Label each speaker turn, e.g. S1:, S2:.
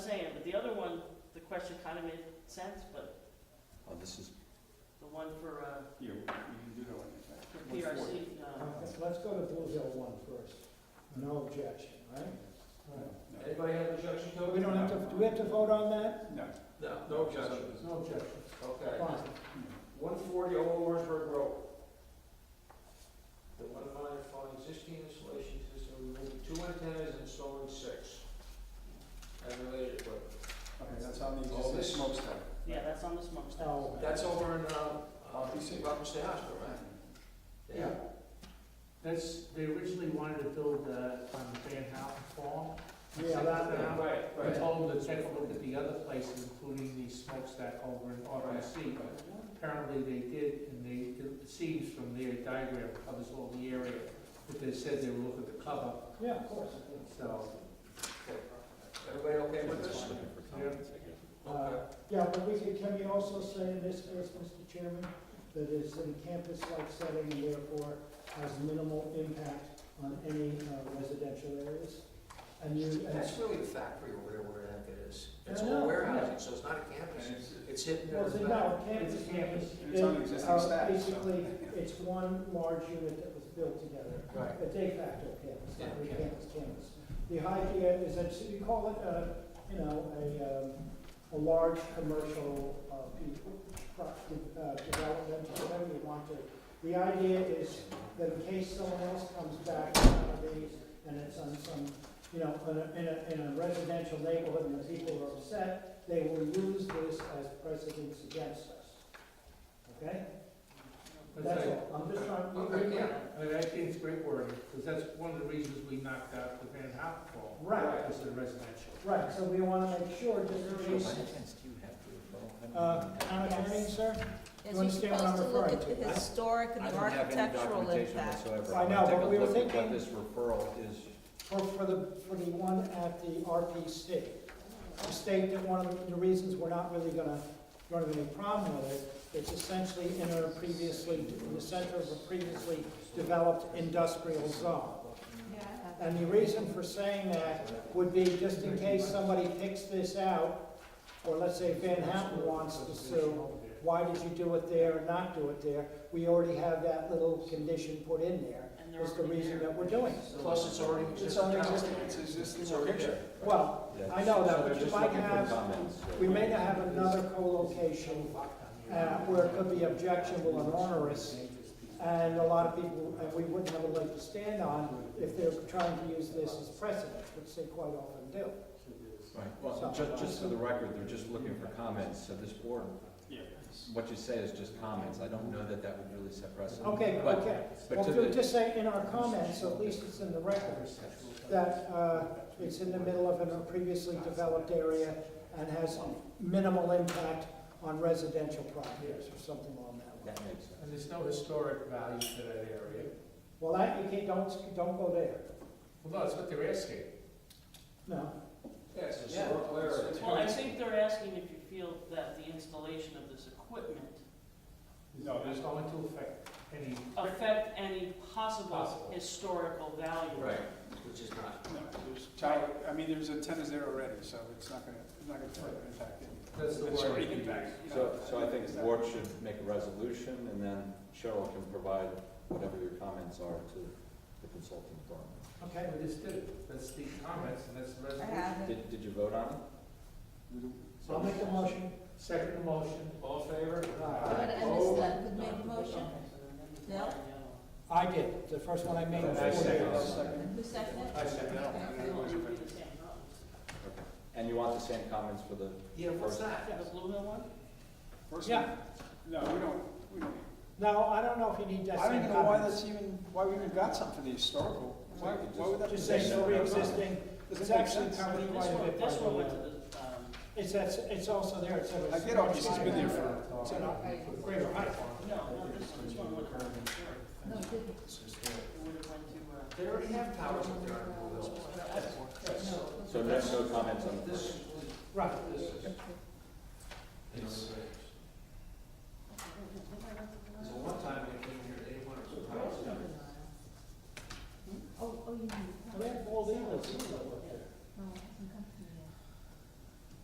S1: other one, the question kind of made sense, but
S2: Oh, this is,
S1: the one for, uh,
S3: You, you can do that one, in fact.
S1: for
S3: What's for?
S1: PRC, no.
S4: Let's- Let's go to Blue Hill one first. No objection, right? All
S3: No.
S5: Anybody have an objection to
S4: right.
S5: it?
S4: We don't have to, do we have to vote on that?
S3: No.
S5: No, no objection.
S4: No objection.
S5: Okay.
S4: Fine.
S5: One forty Old Lawrenceburg Road. The one minor fine existing installation system, removing two antennas and installing six. And related equipment.
S3: Okay, that's on the
S5: All
S3: existing
S5: this-
S3: smokestack.
S1: Yeah, that's on the smoke stack.
S4: Oh.
S5: That's over in, um, uh,
S3: Rocky Six.
S5: Rocky State Hospital, right?
S6: Yeah. That's, they originally wanted to build uh, on Van Houten Farm.
S4: Yeah, that,
S5: Yeah, Right,
S6: I
S5: right.
S6: told them to take a look at the other places, including the smokestack over in Auburn Sea. Apparently they did, and they, it seems from their diagram covers all the area, but they said they were looking to cover,
S4: yeah, of course.
S6: so.
S5: Everybody okay with
S2: just
S5: this?
S2: looking for comments, I guess.
S5: Okay.
S4: uh, Yeah, but we can, can we also say in this case, Mr. Chairman, that it's in a campus-like setting and therefore has minimal impact on any uh, residential areas? And you, and,
S5: That's really a factory over there where I think it is.
S4: I
S5: It's
S4: know,
S5: all
S4: yeah.
S5: warehousing, so it's not a
S3: And
S5: campus.
S3: it's,
S5: It's hidden.
S4: well,
S5: in
S4: so
S5: the back.
S4: no, campus.
S6: It's a campus.
S3: And it's on
S4: it-
S3: existing
S4: uh,
S3: stack, so-
S4: Basically, it's one large unit that was built together.
S5: Right.
S4: a de facto campus,
S5: Yeah,
S4: not a
S5: yeah.
S4: campus campus. The idea is that, so you call it, uh, you know, a, um, a large commercial, uh, pe- pro- uh, development, or whatever you want to. The idea is that in case someone else comes back with one of these, and it's on some, you know, in a, in a, in a residential neighborhood, and the people are upset, they will use this as precedence against us. Okay? That's all, I'm just trying.
S5: Okay, yeah.
S6: I mean, I think it's great wording, because that's one of the reasons we knocked out the Van Houten Farm.
S4: Right.
S6: Because of the residential.
S4: Right, so we want to make sure, just in case,
S2: do you have to
S4: uh, Town Attorney, sir? You
S7: Yes, you're
S4: understand what I'm
S7: supposed to look
S4: referring
S7: at the
S4: to?
S7: historic and
S2: I
S7: the
S2: don't have any
S7: architectural
S2: documentation
S7: impact.
S2: whatsoever.
S4: I know,
S2: Take
S4: but
S2: a
S4: we were
S2: look at What
S4: thinking-
S2: this referral is,
S4: For, for the, for the one at the RPC. The state that one of the reasons we're not really going to run into any problem with it, it's essentially in a previously, in the center of a previously developed industrial zone. And the reason for saying that would be just in case somebody picks this out, or let's say Van Houten wants to sue, why did you do it there and not do it there? We already have that little condition put in there,
S1: And they're
S4: is the
S1: already
S4: reason
S1: there.
S4: that we're doing it.
S5: Plus, it's already existing.
S3: It's on existing, it's existing
S5: It's already
S3: picture.
S5: there.
S4: Well,
S2: yeah.
S4: I know that,
S2: So
S4: but
S2: they're
S4: you
S2: just
S4: might
S2: looking for
S4: have-
S2: comments, so-
S4: we may not have another co-location, uh, where it could be objectionable and onerous, and a lot of people, and we wouldn't have a leg to stand on if they're trying to use this as precedent, which they quite often do.
S2: Right, well, just, just for the record, they're just looking for comments, so this board,
S3: Yeah.
S2: what you say is just comments, I don't know that that would really set precedent.
S4: Okay,
S2: But-
S4: okay.
S2: But
S4: Well,
S2: to
S4: ju-
S2: the,
S4: just say in our comments, so at least it's in the record, that uh, it's in the middle of a previously developed area and has minimal impact on residential properties or something along that line.
S2: that makes sense.
S6: And there's no historic value to that area.
S4: Well, that, you can't, don't, don't go there.
S6: Well, no, that's what they're asking.
S4: No,
S5: Yeah, it's a
S3: Yeah.
S5: historical area.
S1: Well, I think they're asking if you feel that the installation of this equipment
S3: No,
S6: It's
S3: there's-
S6: going to affect any.
S1: affect any
S6: Possible.
S1: possible historical value.
S5: Right, which is not,
S3: No, there's tower, I mean, there's antennas there already, so it's not gonna, it's not gonna further impact it.
S6: That's the
S3: It's
S6: word.
S3: already impacted, you know.
S2: So, so I think
S3: It's
S2: the
S3: not-
S2: board should make a resolution, and then Cheryl can provide whatever your comments are to the consulting firm.
S4: okay.
S6: We just did, it. that's the comments, and that's the
S7: I
S6: resolution.
S7: have it.
S2: Did, did you vote on it?
S4: So I'll make a motion.
S6: Second motion, all in favor?
S7: But
S4: Aye.
S7: I missed
S2: Oh.
S7: that, could make a motion. No?
S4: I did, the first one I made. was
S6: I second.
S4: forty.
S7: Who seconded it?
S6: I second it.
S7: Okay.
S3: And it was-
S1: It'll be the same problems.
S2: And you want the same comments for the,
S5: yeah, what's that?
S1: The Blue Hill one?
S3: First one?
S4: Yeah,
S3: No, we don't, we don't.
S4: no, I don't know if you need that
S3: I
S4: same
S3: don't even know why
S4: comment.
S3: that's even, why we even got something for the historical. Why, why would that be?
S4: Just say
S2: no
S4: so pre-existing,
S3: Doesn't
S4: it's
S3: make
S4: actually
S3: sense.
S1: I
S4: covered
S1: mean,
S4: quite
S1: This
S4: a
S1: one,
S4: bit.
S1: this
S4: by
S1: one went
S4: the,
S1: to
S4: uh,
S1: the, um,
S4: It's, that's- it's also there, it's. a-
S3: I get all this, it's been there for,
S4: It's an up- greater height.
S1: no, not this one, this one went to the historic.
S7: No, it didn't.
S1: It would have went to, uh,
S5: They already have towers up there on Blue Hill.
S2: so no, no comments on the first?
S5: This,
S4: Right.
S5: this is.
S3: It's-